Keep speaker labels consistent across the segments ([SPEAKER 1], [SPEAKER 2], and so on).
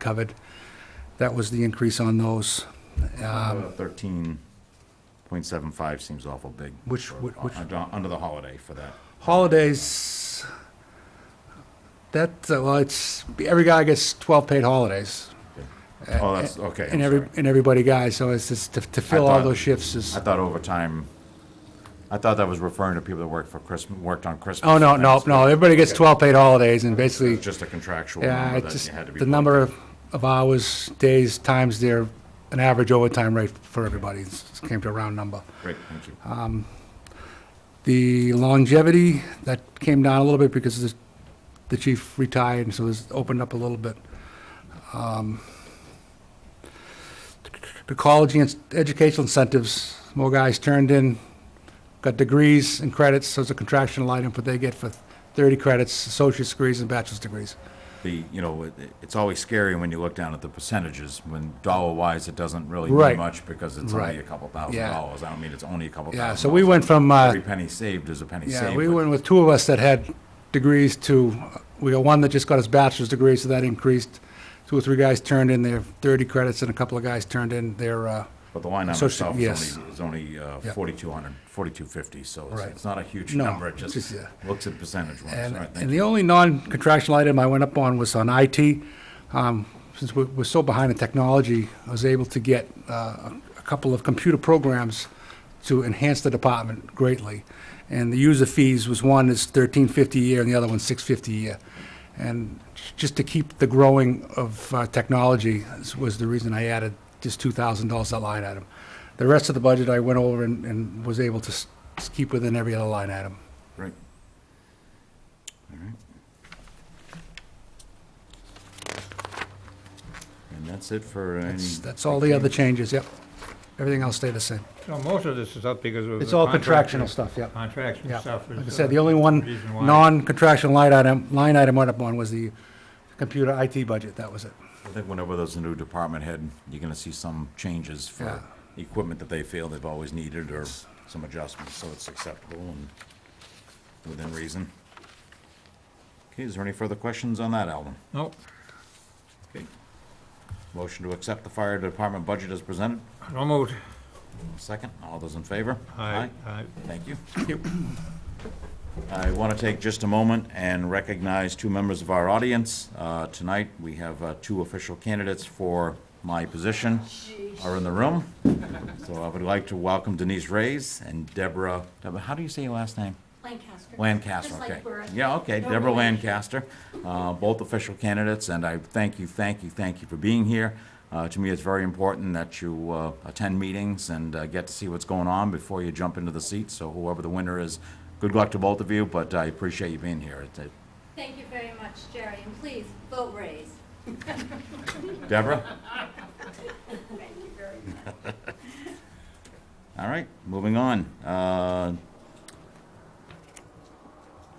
[SPEAKER 1] covered. That was the increase on those. Um,
[SPEAKER 2] Thirteen point seven five seems awful big.
[SPEAKER 1] Which-
[SPEAKER 2] for-
[SPEAKER 1] which- which-
[SPEAKER 2] Under under the holiday for that.
[SPEAKER 1] Holidays, that, uh, well, it's, every guy gets 12 paid holidays.
[SPEAKER 2] Oh, that's, okay, I'm
[SPEAKER 1] And every,
[SPEAKER 2] sorry.
[SPEAKER 1] and everybody guys, so it's just to- to fill all
[SPEAKER 2] thought-
[SPEAKER 1] those shifts is,
[SPEAKER 2] I thought overtime, I thought that was referring to people that worked for Christmas, worked on Christmas.
[SPEAKER 1] oh, no,
[SPEAKER 2] and
[SPEAKER 1] no,
[SPEAKER 2] Thanksgiving.
[SPEAKER 1] no, everybody gets 12 paid holidays and basically,
[SPEAKER 2] It's Just a contractual
[SPEAKER 1] yeah,
[SPEAKER 2] number
[SPEAKER 1] it's
[SPEAKER 2] that
[SPEAKER 1] just
[SPEAKER 2] you had to be.
[SPEAKER 1] the
[SPEAKER 2] paid.
[SPEAKER 1] number of of hours, days, times their, an average overtime rate for everybody, it's- it came to a round number.
[SPEAKER 2] Great, thank you.
[SPEAKER 1] The longevity, that came down a little bit because the- the chief retired, and so this opened up a little bit. Um, The college and educational incentives, more guys turned in, got degrees and credits, so it's a contractual item, but they get for 30 credits, associate's degrees and bachelor's degrees.
[SPEAKER 2] The, you know, it- it's always scary when you look down at the percentages, when dollar-wise, it doesn't really
[SPEAKER 1] Right.
[SPEAKER 2] mean much because it's only
[SPEAKER 1] Right.
[SPEAKER 2] a couple thousand
[SPEAKER 1] Yeah.
[SPEAKER 2] dollars. I don't mean it's only a couple thousand
[SPEAKER 1] Yeah,
[SPEAKER 2] dollars.
[SPEAKER 1] so we went from, uh,
[SPEAKER 2] Every penny saved is a penny saved.
[SPEAKER 1] yeah, we
[SPEAKER 2] but-
[SPEAKER 1] went with two of us that had degrees to, we got one that just got his bachelor's degree, so that increased. Two or three guys turned in their 30 credits, and a couple of guys turned in their uh,
[SPEAKER 2] But the line item
[SPEAKER 1] So it's-
[SPEAKER 2] itself
[SPEAKER 1] yes.
[SPEAKER 2] is only, is only uh,
[SPEAKER 1] Yeah.
[SPEAKER 2] 4,200, 4,250, so it's-
[SPEAKER 1] Right.
[SPEAKER 2] it's not a huge
[SPEAKER 1] No,
[SPEAKER 2] number. It
[SPEAKER 1] it's
[SPEAKER 2] just
[SPEAKER 1] just,
[SPEAKER 2] looks at percentage wise.
[SPEAKER 1] And,
[SPEAKER 2] All right,
[SPEAKER 1] and
[SPEAKER 2] thank you.
[SPEAKER 1] the only non-contractual item I went up on was on IT. Um, Since we're, we're so behind in technology, I was able to get uh, a a couple of computer programs to enhance the department greatly. And the user fees was one is thirteen fifty a year and the other one's six fifty a year. And j- just to keep the growing of uh, technology is- was the reason I added just two thousand dollars that line item. The rest of the budget I went over and, and was able to s- s- keep within every other line item.
[SPEAKER 2] Great. All right. And that's it for any.
[SPEAKER 1] That's- That's all the other changes, yep. Everything else stayed the same.
[SPEAKER 3] No, most of this is up because of.
[SPEAKER 1] It's
[SPEAKER 3] the
[SPEAKER 1] all
[SPEAKER 3] contract-
[SPEAKER 1] contractual stuff, yep.
[SPEAKER 3] Contractual
[SPEAKER 1] Yeah.
[SPEAKER 3] stuff. is,
[SPEAKER 1] Like I
[SPEAKER 3] uh,
[SPEAKER 1] said, the only one
[SPEAKER 3] reason why.
[SPEAKER 1] non-contractual line item, line item went up on was the computer IT budget, that was it.
[SPEAKER 2] I think whenever there's a new department head, you're gonna see some changes for equipment that they feel they've always needed or some adjustments, so it's acceptable and within reason. Okay, is there any further questions on that, Alvin?
[SPEAKER 3] Nope,
[SPEAKER 2] Okay. Motion to accept the fire department budget as presented.
[SPEAKER 3] no moved.
[SPEAKER 2] Second, all those in favor?
[SPEAKER 3] Aye, aye.
[SPEAKER 2] Thank you. I want to take just a moment and recognize two members of our audience. Uh, Tonight, we have uh, two official candidates for my position are in the room. So I would like to welcome Denise Reyes and Deborah, Deborah, how do you say your last name?
[SPEAKER 4] Lancaster.
[SPEAKER 2] Lancaster,
[SPEAKER 4] Just
[SPEAKER 2] okay.
[SPEAKER 4] like Borough.
[SPEAKER 2] Yeah, okay,
[SPEAKER 4] Don't
[SPEAKER 2] Deborah
[SPEAKER 4] worry.
[SPEAKER 2] Lancaster, uh, both official candidates, and I thank you, thank you, thank you for being here. Uh, To me, it's very important that you uh, attend meetings and uh, get to see what's going on before you jump into the seat, so whoever the winner is, good luck to both of you, but I appreciate you being here. It- it-
[SPEAKER 4] Thank you very much, Jerry, and please, vote raise.
[SPEAKER 2] Deborah?
[SPEAKER 4] Thank you very much.
[SPEAKER 2] All right, moving on. Uh,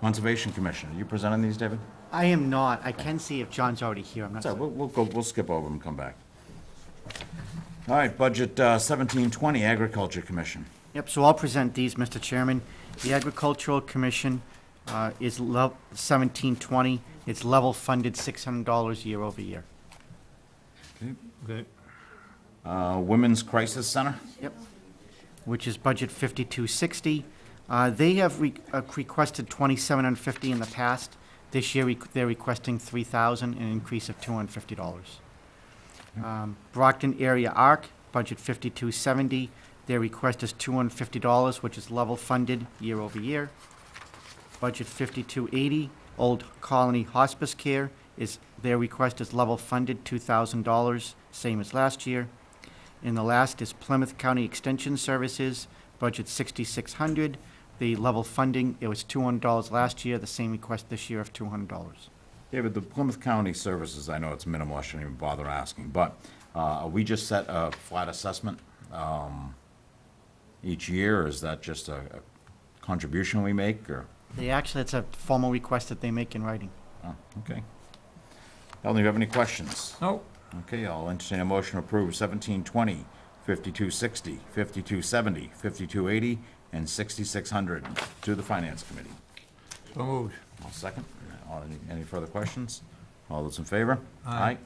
[SPEAKER 2] Conservation Commission, are you presenting these, David?
[SPEAKER 5] I am not. I can see if John's already here. I'm not.
[SPEAKER 2] So we'll, we'll go, we'll skip over them and come back. All right, budget uh, seventeen twenty, Agriculture Commission.
[SPEAKER 5] Yep, so I'll present these, Mr. Chairman. The Agricultural Commission uh, is lev- 1720. It's level funded $600 year over year.
[SPEAKER 3] Okay.
[SPEAKER 2] Uh, Women's Crisis Center,
[SPEAKER 5] Yep. Which is budget 5260. Uh, They have re- uh, requested 2750 in the past. This year, requ- they're requesting 3,000, an increase of $250. Um, Brockton Area ARC, budget 5270. Their request is $250, which is level funded year over year. Budget 5280, Old Colony Hospice Care, is, their request is level funded $2,000, same as last year. And the last is Plymouth County Extension Services, budget 6,600. The level funding, it was $200 last year, the same request this year of $200.
[SPEAKER 2] David, the Plymouth County Services, I know it's minimal, I shouldn't even bother asking, but uh, are we just set a flat assessment um, each year, or is that just a a contribution we make, or?
[SPEAKER 5] They actually, it's a formal request that they make in writing.
[SPEAKER 2] oh, Okay. Ellen, do you have any questions?
[SPEAKER 3] Nope,
[SPEAKER 2] Okay, I'll entertain a motion to approve 1720, 5260, 5270, 5280, and 6600 to the Finance Committee. Uh,
[SPEAKER 3] so moved.
[SPEAKER 2] I'll second. All- any- Any further questions? All those in favor?
[SPEAKER 3] Aye.